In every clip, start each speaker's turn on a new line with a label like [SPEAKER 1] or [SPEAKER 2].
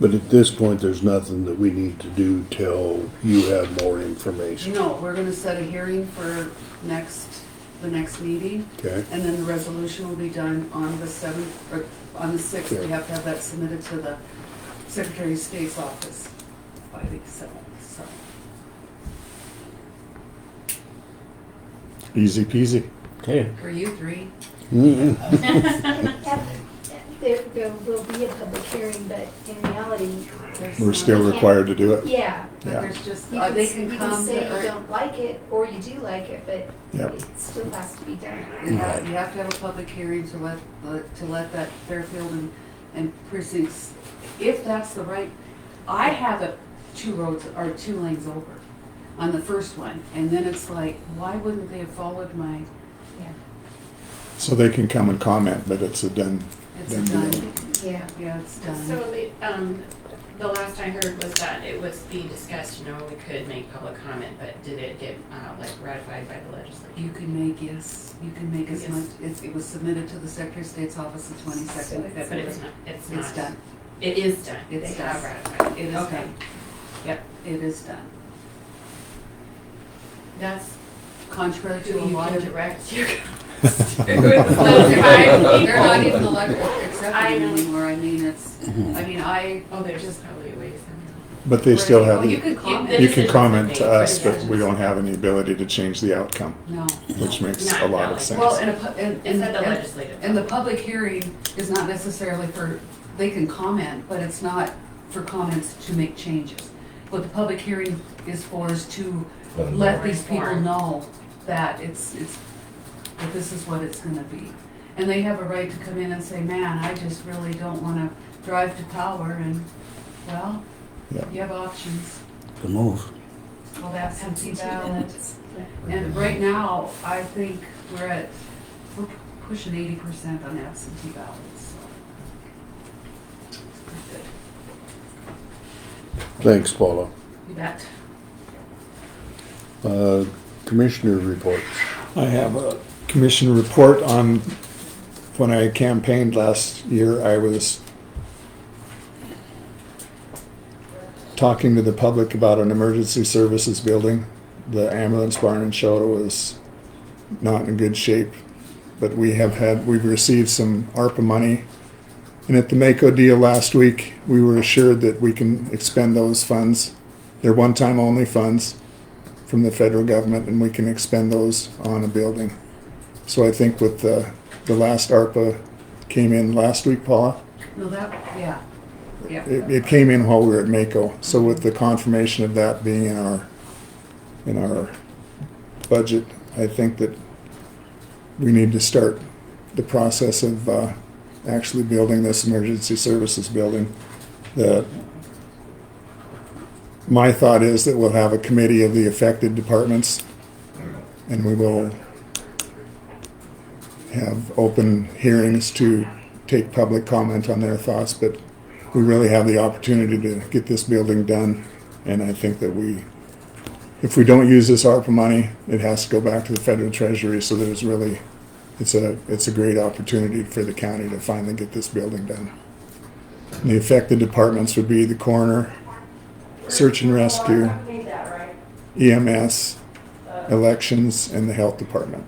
[SPEAKER 1] But at this point, there's nothing that we need to do till you have more information,
[SPEAKER 2] No, we're gonna set a hearing for next, the next meeting,
[SPEAKER 1] okay?
[SPEAKER 2] and then the resolution will be done on the seventh, or on the sixth. We
[SPEAKER 1] Okay.
[SPEAKER 2] have to have that submitted to the Secretary of State's office by the seventh, so.
[SPEAKER 1] Easy peasy.
[SPEAKER 3] Okay.
[SPEAKER 2] For you three,
[SPEAKER 1] Mm-mm.
[SPEAKER 4] There, there will be a public hearing, but in reality,
[SPEAKER 2] there's.
[SPEAKER 1] We're still required to do it.
[SPEAKER 4] yeah,
[SPEAKER 2] But
[SPEAKER 1] yeah.
[SPEAKER 2] there's just,
[SPEAKER 4] you
[SPEAKER 2] uh,
[SPEAKER 4] can,
[SPEAKER 2] they
[SPEAKER 4] s-
[SPEAKER 2] can
[SPEAKER 4] you can
[SPEAKER 2] come,
[SPEAKER 4] say
[SPEAKER 2] to- or
[SPEAKER 4] you don't like it, or you do like it, but
[SPEAKER 1] Yep.
[SPEAKER 4] it still has to be done.
[SPEAKER 2] you have, you have to have a public hearing to let, let- to let that Fairfield and, and precincts, if that's the right, I have it two roads, or two lanes over on the first one, and then it's like, why wouldn't they have followed my,
[SPEAKER 1] So they can come and comment, but it's a done,
[SPEAKER 2] it's
[SPEAKER 1] done deal.
[SPEAKER 2] done,
[SPEAKER 4] Yeah.
[SPEAKER 2] yeah, it's done.
[SPEAKER 5] So the, um, the last I heard was that it was being discussed, you know, we could make public comment, but did it get, uh, like ratified by the legislature?
[SPEAKER 2] You can make, yes, you can make as
[SPEAKER 5] Yes.
[SPEAKER 2] much, it, it was submitted to the Secretary of State's office the twenty-second of
[SPEAKER 5] But
[SPEAKER 2] February.
[SPEAKER 5] it's not, it's not.
[SPEAKER 2] It's done,
[SPEAKER 5] It is done.
[SPEAKER 2] It's
[SPEAKER 5] They have
[SPEAKER 2] done.
[SPEAKER 5] ratified.
[SPEAKER 2] it is
[SPEAKER 5] Okay.
[SPEAKER 2] done, yep, it is done.
[SPEAKER 5] That's
[SPEAKER 2] Contrary
[SPEAKER 5] who
[SPEAKER 2] to a
[SPEAKER 5] you
[SPEAKER 2] lot
[SPEAKER 5] can
[SPEAKER 2] of
[SPEAKER 5] direct your
[SPEAKER 2] They're not even
[SPEAKER 5] comments.
[SPEAKER 2] elected, accepted
[SPEAKER 5] I know.
[SPEAKER 2] anymore, I mean, it's, I mean, I,
[SPEAKER 5] Oh, there's just probably a way somehow.
[SPEAKER 1] but they still
[SPEAKER 2] Well,
[SPEAKER 1] have,
[SPEAKER 2] You
[SPEAKER 1] you
[SPEAKER 2] can comment,
[SPEAKER 5] This
[SPEAKER 1] can
[SPEAKER 5] is
[SPEAKER 1] comment to
[SPEAKER 5] something
[SPEAKER 1] us,
[SPEAKER 5] pretty
[SPEAKER 1] but
[SPEAKER 5] much.
[SPEAKER 1] we don't have any ability to change the outcome,
[SPEAKER 2] no.
[SPEAKER 1] which makes
[SPEAKER 5] Not
[SPEAKER 1] a lot of
[SPEAKER 5] valid.
[SPEAKER 2] Well,
[SPEAKER 1] sense.
[SPEAKER 2] and a, pu- and,
[SPEAKER 5] Is
[SPEAKER 2] and,
[SPEAKER 5] that the
[SPEAKER 2] and-
[SPEAKER 5] legislative?
[SPEAKER 2] and the
[SPEAKER 5] public?
[SPEAKER 2] public hearing is not necessarily for, they can comment, but it's not for comments to make changes. What the public hearing is for is to let these people
[SPEAKER 5] Inform.
[SPEAKER 2] know that it's, it's, that this is what it's gonna be. And they have a right to come in and say, man, I just really don't wanna drive to power and, well,
[SPEAKER 1] Yeah.
[SPEAKER 2] you have options.
[SPEAKER 6] The move.
[SPEAKER 2] Well, that's empty balance. And right now, I think we're at, we're pushing eighty percent on absentee ballots, so. It's pretty good.
[SPEAKER 1] Thanks, Paula.
[SPEAKER 2] You bet.
[SPEAKER 1] Uh, Commissioner reports.
[SPEAKER 3] I have a commission report on, when I campaigned last year, I was talking to the public about an emergency services building. The ambulance barn in Chota was not in good shape, but we have had, we've received some ARPA money. And at the Mako deal last week, we were assured that we can expend those funds. They're one-time only funds from the federal government and we can expend those on a building. So I think with the, the last ARPA came in last week, Paula,
[SPEAKER 2] No, that, yeah, yeah.
[SPEAKER 3] it, it came in while we were at Mako. So with the confirmation of that being in our, in our budget, I think that we need to start the process of, uh, actually building this emergency services building. The, my thought is that we'll have a committee of the affected departments and we will have open hearings to take public comment on their thoughts, but we really have the opportunity to get this building done. And I think that we, if we don't use this ARPA money, it has to go back to the federal treasury. So there's really, it's a, it's a great opportunity for the county to finally get this building done. And the affected departments would be the coroner, search and rescue, EMS, elections, and the health department.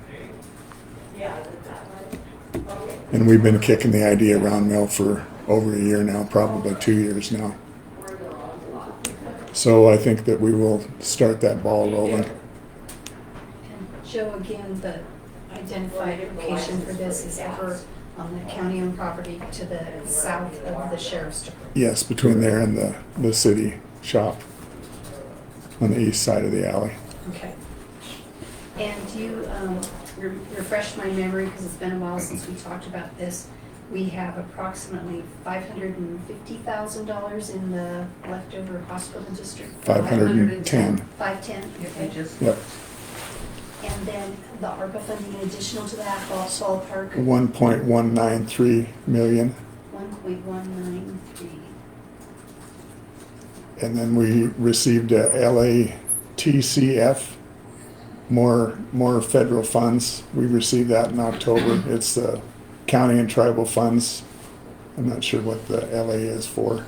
[SPEAKER 3] And we've been kicking the idea around now for over a year now, probably two years now. So I think that we will start that ball rolling.
[SPEAKER 4] And Joe, again, the identified location for this is over on the county-owned property to the south of the sheriff's department.
[SPEAKER 3] Yes, between there and the, the city shop on the east side of the alley.
[SPEAKER 4] Okay. And you, um, re- refresh my memory, because it's been a while since we talked about this. We have approximately five hundred and fifty thousand dollars in the leftover hospital district.
[SPEAKER 3] Five hundred and ten.
[SPEAKER 4] Five-ten,
[SPEAKER 2] If they
[SPEAKER 4] okay.
[SPEAKER 2] just,
[SPEAKER 3] Yep,
[SPEAKER 4] And then the ARPA funding additional to that, Ballsall Park,
[SPEAKER 3] one point one nine three million.
[SPEAKER 4] one point one nine three.
[SPEAKER 3] And then we received uh, a LATCF, more, more federal funds. We received that in October. It's the county and tribal funds. I'm not sure what the LA is for.